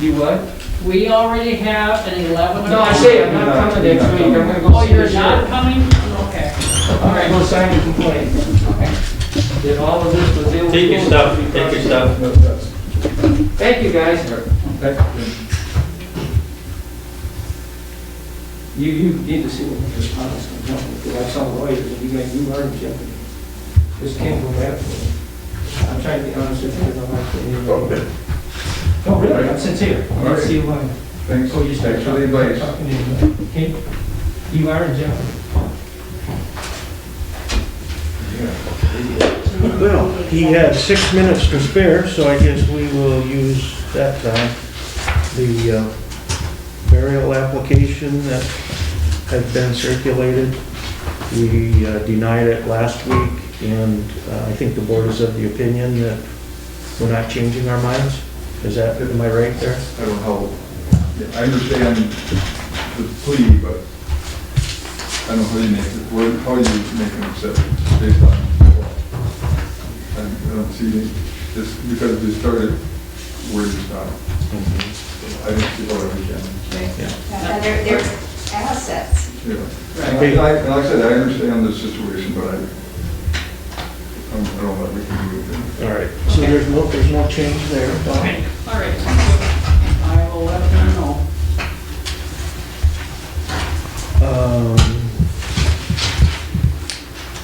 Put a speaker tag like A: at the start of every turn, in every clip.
A: You what?
B: We already have an 11.
A: No, I say I'm not coming next week, I'm gonna go
B: Oh,
A: see the
B: you're not
A: sheriff.
B: coming? Okay.
A: I'm gonna go sign the complaint. That all of this was illegal.
C: Take your stuff, take your stuff.
A: Thank you, guys. You, you need to see what Mr. Thomas can tell me, because I saw lawyers, and you got, you are in jeopardy. This can't go back. I'm trying to be honest with you, I don't like to.
D: Okay,
A: No, Oh, really, I'm sincere. I didn't see why.
D: thanks,
A: Oh, you start
D: thanks for the
A: talking-
D: advice.
A: talking to him, Okay, you are in jeopardy.
E: Well, he had six minutes to spare, so I guess we will use that time. The uh, burial application that had been circulated, we uh, denied it last week, and uh, I think the board is of the opinion that we're not changing our minds. Is that, am I right there?
D: I don't know how, I understand the plea, but I don't know how you make it, what- how you make an exception based on the law. I I don't see, this, because we started where you stopped. So I don't see how we can,
F: And they're, they're assets.
D: you know. And I, and like I said, I understand the situation, but I, I'm- I don't know what we can do with it.
E: All right, so there's no, there's no change there, Bob?
B: Okay, all right. oh. I will let them know.
E: Um,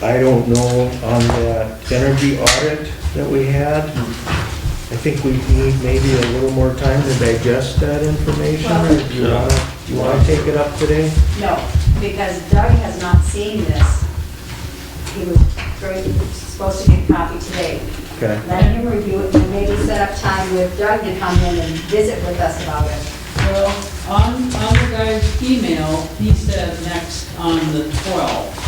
E: I don't know on that energy audit that we had. I think we need maybe a little more time to digest that information. or Do you wanna, do you wanna take it up today?
F: No, because Doug has not seen this. He was very- he was supposed to get a copy today.
E: Okay.
F: Let him review it and maybe set up time with Doug to come in and visit with us about it.
B: Well, on, on the guy's email, he said next on the 12th.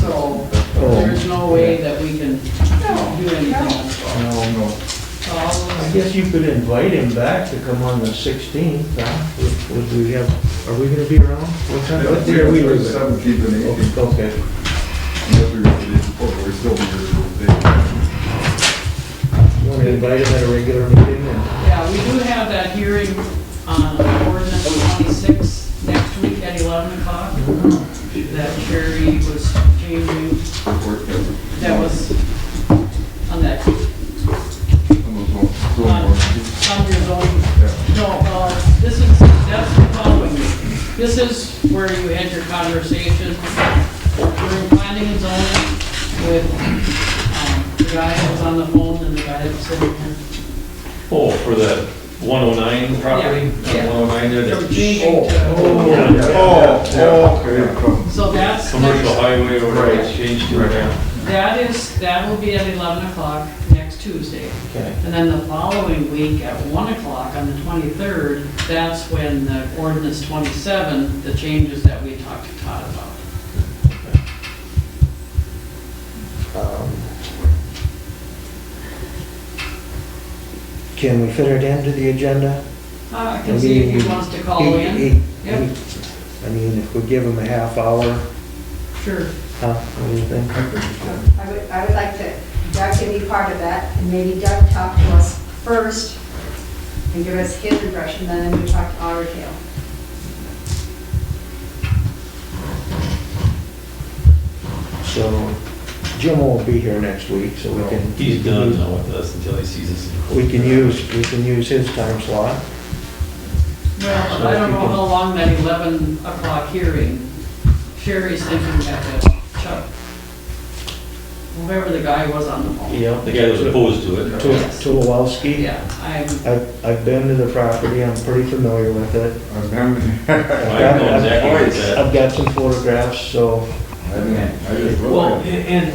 B: So
A: Oh.
B: there's no way that we can do anything. on the 12th.
E: No, no.
B: So I'll-
E: I guess you could invite him back to come on the 16th, huh? Would- Would we have, are we gonna be around? What time, what day are we
D: Yeah,
E: leaving?
D: Seventeenth and eighteenth.
E: Okay.
D: Unless we release the book, we're still here for the day.
E: You wanna invite him at a regular meeting and
B: Yeah, we do have that hearing on ordinance 26 next week at 11 o'clock that Sherry was changing, that was on that, on your zone. No, uh, this is, that's the following. This is where you had your conversation. We're planning and zoning with um, the guy that was on the phone and the guy that's sitting here.
C: Oh, for the 109 property?
B: Yeah, yeah.
C: 109 there,
B: They're
C: the
B: changing to,
D: Oh, okay.
B: so that's.
C: commercial
B: next-
C: highway or whatever it's changed to.
B: That is, that will be at 11 o'clock next Tuesday.
E: Okay.
B: And then the following week at 1 o'clock on the 23rd, that's when the ordinance 27, the changes that we talked to Todd about.
E: Um, Can we fit it into the agenda?
B: Uh, I can see if he wants to call
E: He- he-
B: in.
E: he-
B: Yep.
E: I mean, if we give him a half hour,
B: Sure.
E: huh, what do you think?
F: I would, I would like to, Doug can be part of that, and maybe Doug talk to us first and give us his impression, then we talk to our tale.
E: So Jim won't be here next week, so we can.
C: He's done now with us until he sees us. in court.
E: We can use, we can use his time slot.
B: Well, I don't know how long that 11 o'clock hearing, Sherry's thinking that the Chuck, whoever the guy was on the phone.
E: Yeah.
C: The guy was opposed to it.
E: Tulowski.
B: Yeah, I'm,
E: I've, I've been to the property, I'm pretty familiar with it.
D: I've been,
E: I've
C: I
E: got-
C: know
E: I've-
C: exactly where it's at.
E: I've got some photographs, so
D: I've been, I just.
C: Well, and and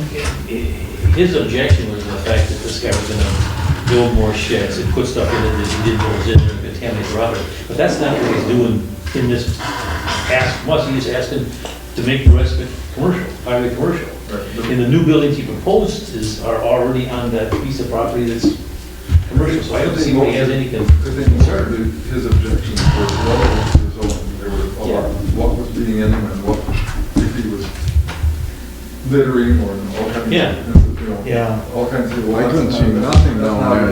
C: his objection was the fact that this guy was gonna build more sheds and put stuff in it that he didn't know was in there, and contaminate the rubber. But that's not what he's doing in this ask, must, he's asking to make the rest of it commercial, highway commercial. And the new buildings he proposed is, are already on that piece of property that's commercial, so I don't see why he has anything.
D: Because they concerned that his objections were well resolved, they were, a lot- what was being in them and what, if he was littering or all kinds of.
C: Yeah.
D: you know,
E: Yeah.
D: All kinds of.
G: I couldn't see
D: That's not-
G: nothing down
D: that's not
G: there.